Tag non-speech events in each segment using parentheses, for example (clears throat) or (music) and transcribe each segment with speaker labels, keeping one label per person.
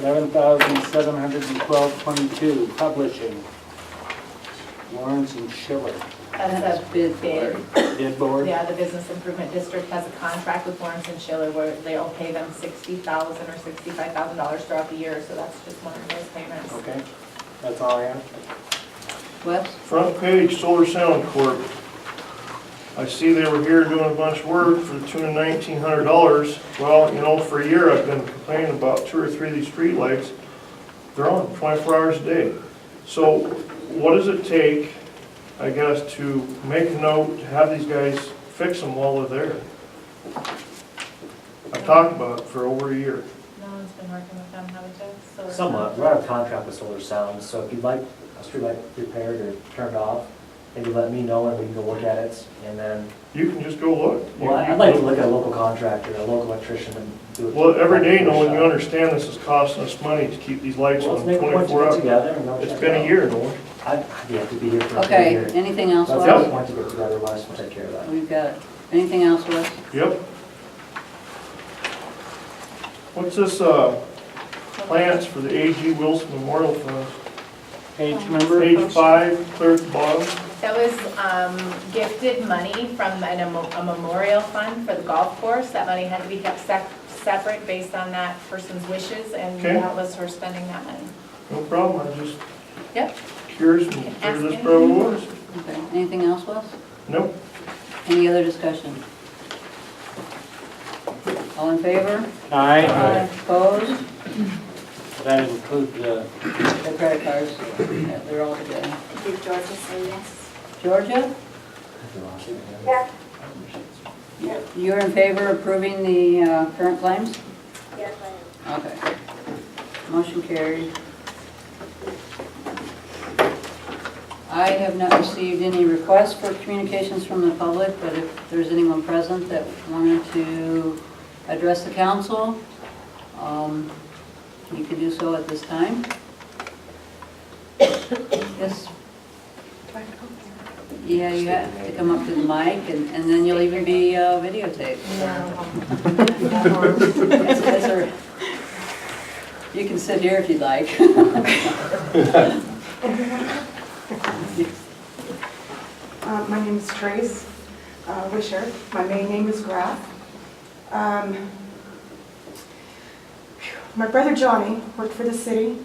Speaker 1: eleven thousand seven hundred and twelve twenty-two, publishing. Lawrence and Schiller,
Speaker 2: That's a bid bid.
Speaker 1: bid board.
Speaker 2: Yeah, the Business Improvement District has a contract with Lawrence and Schiller where they'll pay them sixty thousand or sixty-five thousand dollars throughout the year, so that's just one of those payments.
Speaker 3: Oh.
Speaker 1: Okay, that's all I have.
Speaker 4: Wes?
Speaker 3: Front page, Solar Sound Corp. I see they were here doing a bunch of work for the tune of nineteen hundred dollars. Well, you know, for a year I've been complaining about two or three of these streetlights. They're on twenty-four hours a day. So what does it take, I guess, to make a note, to have these guys fix them while they're there? I've talked about it for over a year.
Speaker 2: No one's been working with them, have we, Jeff?
Speaker 5: Somewhat, we're out of contract with Solar Sound, so if you'd like a streetlight repaired or turned off, maybe let me know and we can go look at it, and then,
Speaker 3: You can just go look.
Speaker 5: well, I'd like to look at a local contractor, a local electrician and do it.
Speaker 3: Well, every day, Nolan, you understand this is costing us money to keep these lights
Speaker 5: Well,
Speaker 3: on
Speaker 5: Let's make a point to
Speaker 3: twenty-four
Speaker 5: get
Speaker 3: hours.
Speaker 5: together and go check
Speaker 3: It's
Speaker 5: it
Speaker 3: been a
Speaker 5: out.
Speaker 3: year, Nolan.
Speaker 5: I'd, I'd have to be here for a
Speaker 4: Okay,
Speaker 5: year.
Speaker 4: anything else,
Speaker 5: Let's have a
Speaker 4: Wes?
Speaker 5: point to get together, Wes, we'll take care of that.
Speaker 4: We've got it. Anything else, Wes?
Speaker 3: Yep. What's this, uh, plans for the A.G. Wilson Memorial Fund?
Speaker 1: Page number?
Speaker 3: Page five, clear at the bottom.
Speaker 2: That was um, gifted money from an- a memorial fund for the golf course. That money had to be kept sec- separate based on that person's wishes, and
Speaker 3: Okay.
Speaker 2: that was her spending that money.
Speaker 3: No problem, I'm just
Speaker 2: Yep.
Speaker 3: curious and
Speaker 2: Can ask
Speaker 3: where this
Speaker 2: him.
Speaker 3: problem was.
Speaker 4: Okay, anything else, Wes?
Speaker 3: Nope.
Speaker 4: Any other discussion? All in favor?
Speaker 1: Aye.
Speaker 4: Opposed?
Speaker 1: That include the,
Speaker 4: The credit cards, yeah, they're all together.
Speaker 6: Did Georgia say yes?
Speaker 4: Georgia,
Speaker 6: Yeah.
Speaker 4: you're in favor of approving the uh, current claims?
Speaker 6: Yes, I am.
Speaker 4: Okay. Motion carried. I have not received any requests for communications from the public, but if there's anyone present that wanted to address the council, um, you can do so at this time. (coughs) Yes? Yeah, you have to come up to the mic, and and then you'll even be uh, videotaped. (laughs) That's- that's all right. You can sit here if you'd like. (laughs)
Speaker 7: Uh, My name is Trace uh, Wisher. My main name is Graff. Um, My brother Johnny worked for the city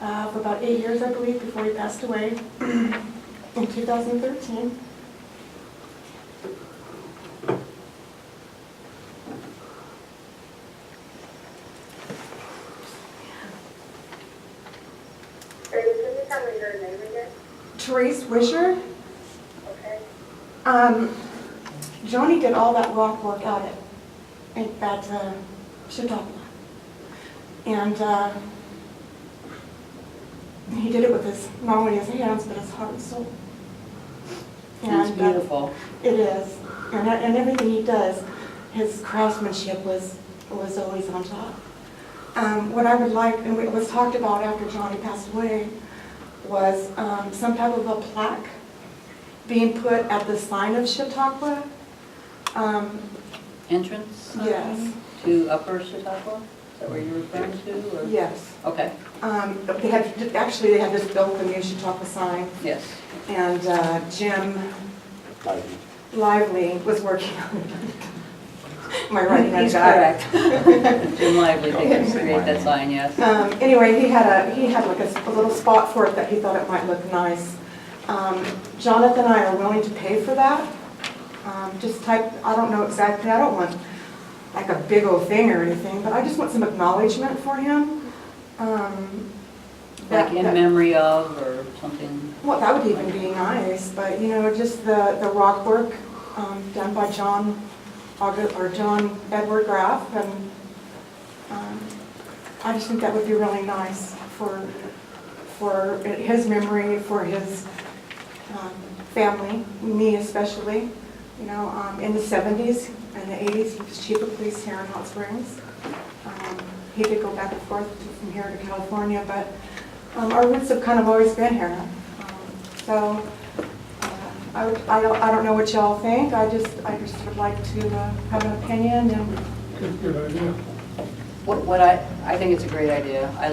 Speaker 7: uh, for about eight years, I believe, before he passed away (clears throat) in 2013.
Speaker 6: Are you, can you tell me your name again?
Speaker 7: Trace Wisher,
Speaker 6: Okay.
Speaker 7: um, Johnny did all that rock work out at, at- at uh, Chautauqua. And uh, he did it with his, not only his hands, but his heart and soul.
Speaker 4: That's
Speaker 7: And, uh,
Speaker 4: beautiful.
Speaker 7: It is, and, I- and everything he does, his craftsmanship was, was always on top. Um, what I would like, and it was talked about after Johnny passed away, was, um, some type of a plaque being put at the sign of Chautauqua. Um,
Speaker 4: Entrance? uh,
Speaker 7: yes,
Speaker 4: To Upper Chautauqua? Is that where you're referring to? or-
Speaker 7: yes.
Speaker 4: Okay,
Speaker 7: Um, they had, actually, they had just built the new Chautauqua sign,
Speaker 4: yes.
Speaker 7: and, uh, Jim Lively was working on it. (laughs) My right hand
Speaker 4: He's
Speaker 7: guy.
Speaker 4: correct. (laughs)
Speaker 7: (laughs)
Speaker 4: Jim Lively did create that sign, yes.
Speaker 7: Um, anyway, he had a, he had like a, s- a little spot for it that he thought it might look nice. Um, Jonathan and I are willing to pay for that. Um, just type, I don't know exactly, I don't want like a big old thing or anything, but I just want some acknowledgement for him. Um, that-
Speaker 4: Like in
Speaker 7: that-
Speaker 4: memory of or something.
Speaker 7: Well, that would even be nice, but you know, just the, the rock work, um, done by John August, or John Edward Graff and, um, I just think that would be really nice for, for his memory, for his um, family, me especially. You know, um, in the 70s and the 80s, he was chief of police here in Hot Springs. Um, He did go back and forth from here to California, but um, our roots have kind of always been here. Um, So uh, I would- I don't, I don't know what y'all think, I just, I just would like to uh, have an opinion and
Speaker 4: What what I, I think it's a great idea. I